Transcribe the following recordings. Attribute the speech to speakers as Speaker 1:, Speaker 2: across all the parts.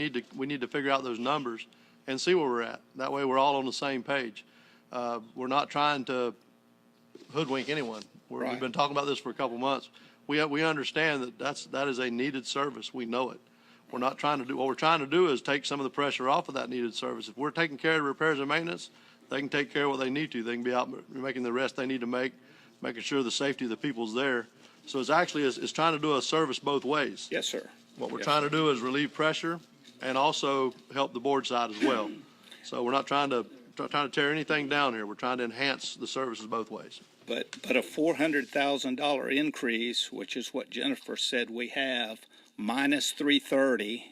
Speaker 1: need to, we need to figure out those numbers and see where we're at. That way, we're all on the same page. Uh, We're not trying to hoodwink anyone. We're- We've
Speaker 2: Right.
Speaker 1: been talking about this for a couple months. We, we understand that that's, that is a needed service. We know it. We're not trying to do, what we're trying to do is take some of the pressure off of that needed service. If we're taking care of repairs and maintenance, they can take care of what they need to. They can be out making the rest they need to make, making sure the safety of the people's there. So it's actually, it's, it's trying to do a service both ways.
Speaker 2: Yes, sir.
Speaker 1: What we're
Speaker 2: Yes,
Speaker 1: trying
Speaker 2: sir.
Speaker 1: to do is relieve pressure and also help the board side as well. So we're not trying to, try- trying to tear anything down here. We're trying to enhance the services both ways.
Speaker 2: But, but a four hundred thousand dollar increase, which is what Jennifer said we have, minus three thirty,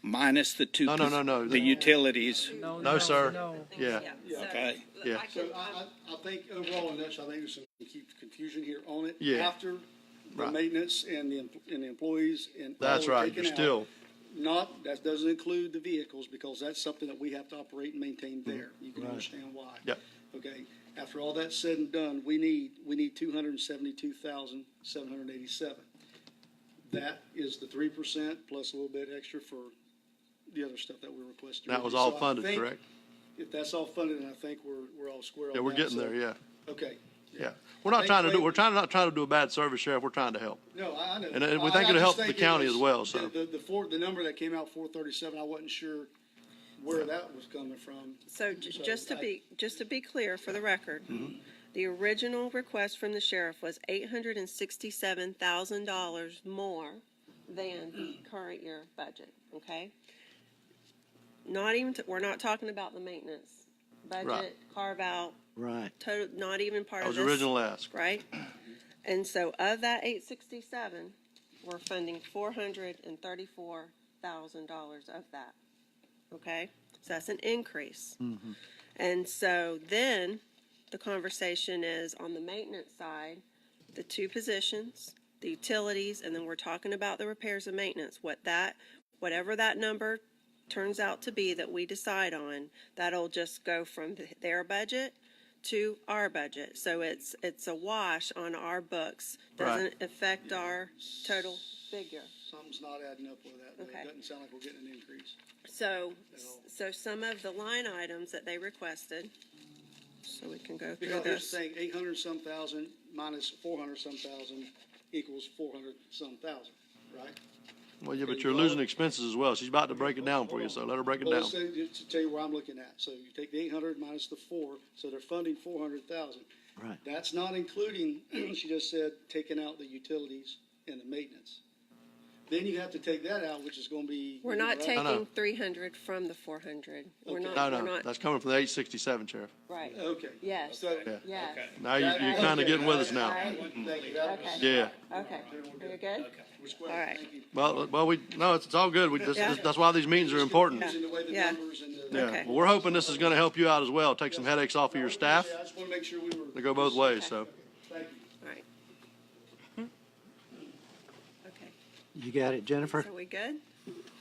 Speaker 2: minus the two.
Speaker 1: No, no, no, no.
Speaker 2: The utilities,
Speaker 1: No, sir.
Speaker 3: no.
Speaker 1: Yeah.
Speaker 2: okay?
Speaker 1: Yeah.
Speaker 4: So I, I, I think overall in this, I think there's some keep- confusion here on it.
Speaker 1: Yeah.
Speaker 4: After the
Speaker 1: Right.
Speaker 4: maintenance and the, em- and the employees and. all
Speaker 1: That's
Speaker 4: are
Speaker 1: right.
Speaker 4: taken
Speaker 1: You're
Speaker 4: out.
Speaker 1: still,
Speaker 4: Not, that doesn't include the vehicles because that's something that we have to operate and maintain there. You can understand why.
Speaker 1: Mm-hmm. Yep.
Speaker 4: Okay, after all that's said and done, we need, we need two hundred and seventy-two thousand, seven hundred and eighty-seven. That is the three percent plus a little bit extra for the other stuff that we requested.
Speaker 1: that was all
Speaker 4: So I
Speaker 1: funded,
Speaker 4: think
Speaker 1: correct?
Speaker 4: If that's all funded, then I think we're, we're all square on
Speaker 1: Yeah, we're
Speaker 4: that,
Speaker 1: getting
Speaker 4: so-
Speaker 1: there, yeah,
Speaker 4: Okay,
Speaker 1: yeah. We're not
Speaker 4: Thank
Speaker 1: trying to do,
Speaker 4: you.
Speaker 1: we're trying, to not trying to do a bad service, Sheriff. We're trying to help.
Speaker 4: no, I I know.
Speaker 1: And, uh, we
Speaker 4: I-
Speaker 1: think
Speaker 4: I
Speaker 1: it'll
Speaker 4: just
Speaker 1: help the
Speaker 4: think it
Speaker 1: county
Speaker 4: was-
Speaker 1: as well, so.
Speaker 4: The, the- the four, the number that came out, four thirty-seven, I wasn't sure where that was coming from.
Speaker 3: So j- just to be, just to be clear for the record,
Speaker 1: Mm-hmm.
Speaker 3: the original request from the sheriff was eight hundred and sixty-seven thousand dollars more than the
Speaker 1: Mm-hmm.
Speaker 3: current year budget, okay? Not even, t- we're not talking about the maintenance budget, carve out,
Speaker 5: Right.
Speaker 3: total, not even part
Speaker 1: That
Speaker 3: of
Speaker 1: was
Speaker 3: this.
Speaker 1: original ask.
Speaker 3: Right? And so of that eight sixty-seven, we're funding four hundred and thirty-four thousand dollars of that. Okay? So that's an increase. And so then the conversation is on the maintenance side, the two positions, the utilities, and then we're talking about the repairs and maintenance, what that, whatever that number turns out to be that we decide on, that'll just go from th- their budget to our budget. So it's, it's a wash on our books, doesn't affect our total figure.
Speaker 4: Something's not adding up with that, though.
Speaker 3: Okay.
Speaker 4: It doesn't sound like we're getting an increase.
Speaker 3: So, so some of the line items that they requested, so we can go through
Speaker 4: Because they're
Speaker 3: this.
Speaker 4: saying eight hundred some thousand minus four hundred some thousand equals four hundred some thousand, right?
Speaker 1: Well, yeah, but you're losing expenses as well. She's about to break it down for you, so let her break it
Speaker 4: Well,
Speaker 1: down.
Speaker 4: let's say, just to tell you where I'm looking at, so you take the eight hundred minus the four, so they're funding four hundred thousand.
Speaker 5: Right.
Speaker 4: That's not including, she just said, taking out the utilities and the maintenance. Then you have to take that out, which is gonna be.
Speaker 3: We're not
Speaker 4: right?
Speaker 3: taking three hundred from the four hundred. We're
Speaker 4: Okay.
Speaker 3: not,
Speaker 1: No,
Speaker 3: we're
Speaker 1: no,
Speaker 3: not,
Speaker 1: that's coming from the eight sixty-seven, Sheriff.
Speaker 3: right,
Speaker 4: Okay.
Speaker 3: Yes.
Speaker 4: So-
Speaker 1: Yeah.
Speaker 3: yes,
Speaker 1: Now you, you're kind of getting with us now.
Speaker 3: Alright.
Speaker 4: Thank you. That was-
Speaker 3: Okay.
Speaker 1: Yeah.
Speaker 3: okay. Are you good?
Speaker 4: we're square.
Speaker 3: Alright.
Speaker 4: Thank you.
Speaker 1: Well, well, we, no, it's, it's all good. We, this,
Speaker 3: Yeah.
Speaker 1: this- that's why these meetings are important.
Speaker 4: Using the way the
Speaker 3: Yeah.
Speaker 4: numbers and the-
Speaker 1: Yeah.
Speaker 3: Okay.
Speaker 1: Well, we're hoping this is going to help you out as well. Take some headaches off of your staff.
Speaker 4: Yeah, I just wanna make sure we were.
Speaker 1: They go both ways, so.
Speaker 4: Thank you.
Speaker 3: All right. Okay,
Speaker 5: You got it, Jennifer?
Speaker 3: so we good?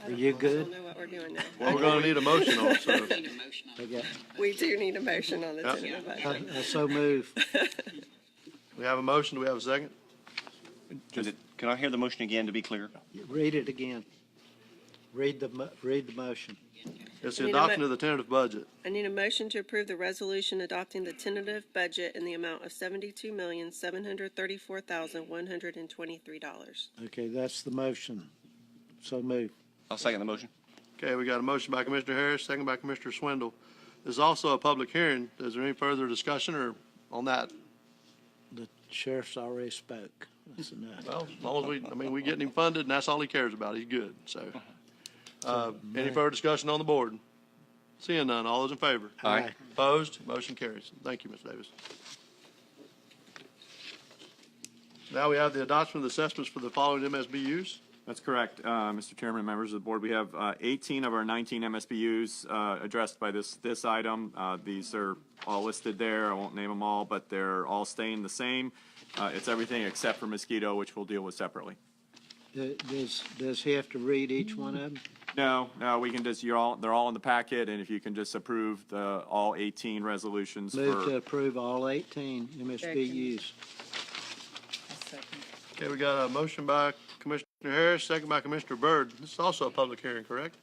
Speaker 5: Are you
Speaker 3: I don't
Speaker 5: good?
Speaker 3: know what we're doing now.
Speaker 1: Well, we're going to need a motion on it, so.
Speaker 5: I got,
Speaker 3: We do need a motion on the
Speaker 1: Yeah.
Speaker 3: tentative
Speaker 5: I
Speaker 3: budget.
Speaker 5: I Uh, so move.
Speaker 1: We have a motion. Do we have a second?
Speaker 6: Is it- Can I hear the motion again to be clear?
Speaker 5: Read it again. Read the, mo- read the motion.
Speaker 1: It's the
Speaker 3: Need a mo-
Speaker 1: adoption of the tentative budget.
Speaker 3: I need a motion to approve the resolution adopting the tentative budget in the amount of seventy-two million, seven hundred thirty-four thousand, one hundred and twenty-three dollars.
Speaker 5: Okay, that's the motion. So move.
Speaker 6: I'll second the motion.
Speaker 1: Okay, we got a motion by Commissioner Harris, second by Commissioner Swindle. This is also a public hearing. Is there any further discussion or on that?
Speaker 5: The sheriff's already spoke. That's enough.
Speaker 1: Well, as long as we, I mean, we getting him funded, and that's all he cares about, he's good, so. Uh, any further discussion on the board? Seeing none, all those in favor?
Speaker 6: Aye.
Speaker 5: Aye.
Speaker 1: Opposed, motion carries. Thank you, Ms. Davis. Now we have the adoption of the assessments for the following MSBU's.
Speaker 7: That's correct, uh, Mr. Chairman and members of the board. We have uh, 18 of our 19 MSBU's uh, addressed by this, this item. Uh, These are all listed there. I won't name them all, but they're all staying the same. Uh, It's everything except for mosquito, which we'll deal with separately.
Speaker 5: Uh, Does, does he have to read each one of them?
Speaker 7: No, no, we can just, you're all, they're all in the packet, and if you can just approve the, all 18 resolutions
Speaker 5: Move to
Speaker 7: for,
Speaker 5: approve all 18 MSBU's.
Speaker 1: Okay, we got a motion by Commissioner Harris, second by Commissioner Byrd. This is also a public hearing, correct?